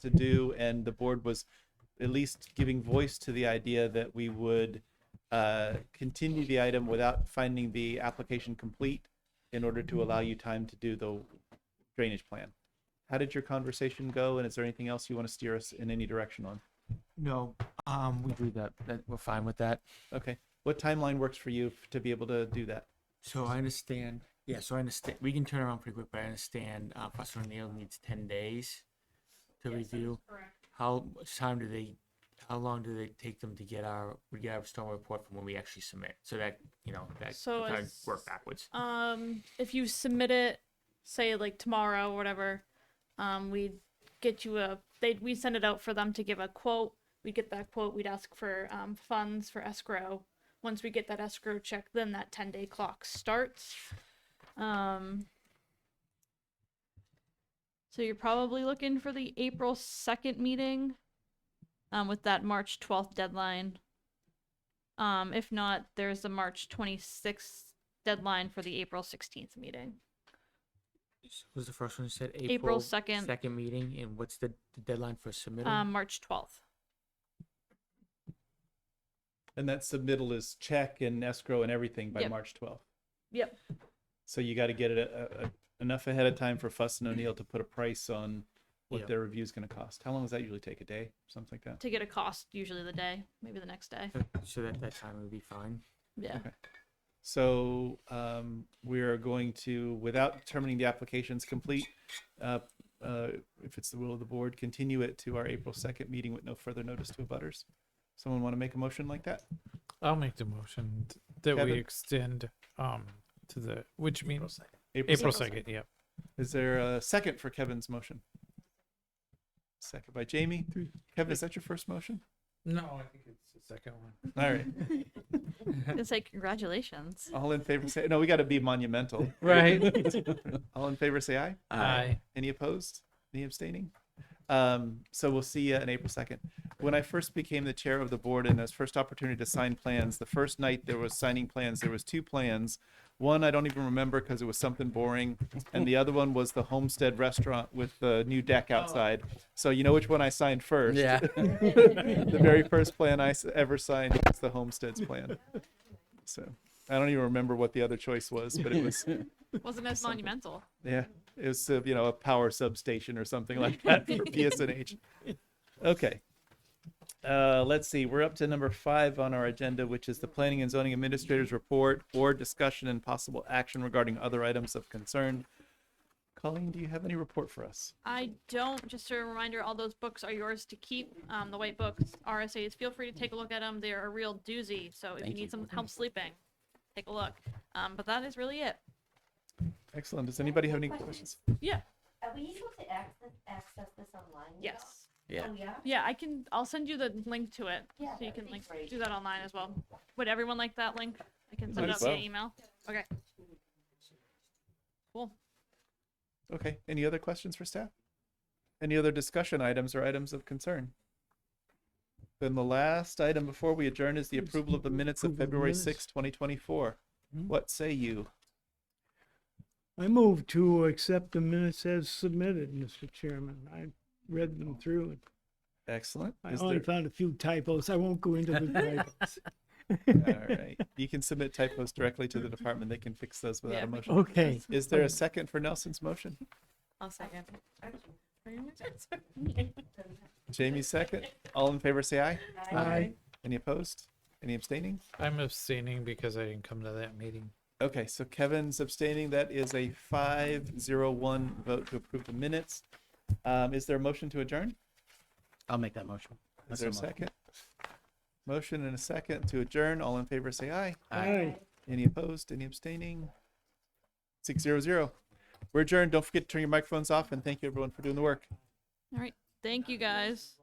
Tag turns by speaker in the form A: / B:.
A: to do, and the board was at least giving voice to the idea that we would uh, continue the item without finding the application complete in order to allow you time to do the drainage plan. How did your conversation go, and is there anything else you want to steer us in any direction on?
B: No, um, we do that, that, we're fine with that.
A: Okay, what timeline works for you f- to be able to do that?
B: So I understand, yeah, so I understand, we can turn around pretty quick, but I understand, uh, Professor O'Neill needs ten days to review. How much time do they, how long do they take them to get our, we get our storm report from when we actually submit? So that, you know, that,
C: So
B: kind of
C: as-
B: work backwards.
C: Um, if you submit it, say like tomorrow or whatever, um, we'd get you a they would we would send it out for them to give a quote. We would get that quote. We'd ask for um, funds for escrow. Once we get that escrow check, then that ten day clock starts. Um, so you're probably looking for the April second meeting, um, with that March twelfth deadline. Um, if not, there's the March twenty sixth deadline for the April 16th meeting.
B: What Was the first one you said?
C: April 2nd.
B: Second meeting, and what's the the deadline for submitting?
C: Um, March 12th.
A: And that submittal is check and escrow and everything by
C: Yep.
A: March 12th.
C: Yep.
A: So you got to get it uh uh enough ahead of time for Fuss and O'Neill to put a price on what
B: Yeah.
A: their review is going to cost. How long does that usually take? A day, something like that.
C: To get a cost, usually the day, maybe the next day.
B: So that, that time would be fine.
C: Yeah.
A: So um, we are going to, without determining the application's complete, uh, uh, if it's the will of the board, continue it to our April 2nd meeting with no further notice to abutters. Someone want to make a motion like that?
D: I'll make the motion t- that
A: Kevin?
D: we extend um to the which means
A: April
D: April
A: 2nd.
D: second. Yep.
A: Is there a second for Kevin's motion? Second by Jamie. Kevin, is that your first motion?
D: No, I think it's the second one.
A: All right.
C: Gonna say congratulations.
A: All in favor say no. We got to be monumental.
D: Right.
A: All in favor say aye.
D: Aye.
A: Any opposed? Any abstaining? Um, so we'll see you on April 2nd. When I first became the chair of the board and this first opportunity to sign plans, the first night there was signing plans, there was two plans. One I don't even remember because it was something boring, and the other one was the Homestead Restaurant with the new deck outside. So you know which one I signed first.
B: Yeah.
A: the very first plan I s- ever signed was the Homestead's plan. So I don't even remember what the other choice was, but it was
C: Wasn't as monumental.
A: yeah, it was uh, you know a power substation or something like that for PSNH. Okay. Uh, let's see. We're up to number five on our agenda, which is the Planning and Zoning Administrator's Report or discussion and possible action regarding other items of concern. Colleen, do you have any report for us?
C: I don't, just a reminder, all those books are yours to keep. Um, the white books, RSAs, feel free to take a look at them. They're a real doozy. So if you need some help sleeping, take a look. Um, but that is really it.
A: Excellent. Does anybody have any questions?
C: Yeah.
E: Are we able to access, access this online? now?
C: Yes.
E: Oh, yeah?
C: Yeah, I can, I'll send you the link to it.
E: Yeah,
C: So you
E: that'd
C: can
E: be
C: like
E: great.
C: do that online as well. Would everyone like that link? I can send
A: Might
C: it out
A: as
C: via
A: well.
C: email. Okay. Cool.
A: Okay. Any other questions for staff? Any other discussion items or items of concern? Then the last item before we adjourn is the approval of the minutes of
F: Approval of
A: February
F: minutes.
A: sixth, twenty 2024.
F: Hmm.
A: What say you?
F: I move to accept the minutes as submitted, Mr. Chairman. I read them through. and
A: Excellent.
F: I
A: Is
F: only
A: there-
F: found a few typos. I won't go into the typos.
A: All right. You can submit typos directly to the department. They can fix those without
C: Yeah,
A: a
C: we
A: motion.
F: Okay.
A: Is there a second for Nelson's motion?
G: I'll second.
A: Jamie's second. All in favor, say aye.
F: Aye.
A: Any opposed? Any abstaining?
D: I'm abstaining because I didn't come to that meeting.
A: Okay, so Kevin's abstaining. That is a five zero one vote to approve the minutes. Um, is there a motion to adjourn?
B: I'll make that motion.
A: Is there a second? Motion and a second to adjourn. All in favor, say aye.
F: Aye.
A: Any opposed? Any abstaining? Six zero zero. We're adjourned. Don't forget to turn your microphones off and thank you everyone for doing the work.
C: All right. Thank you guys.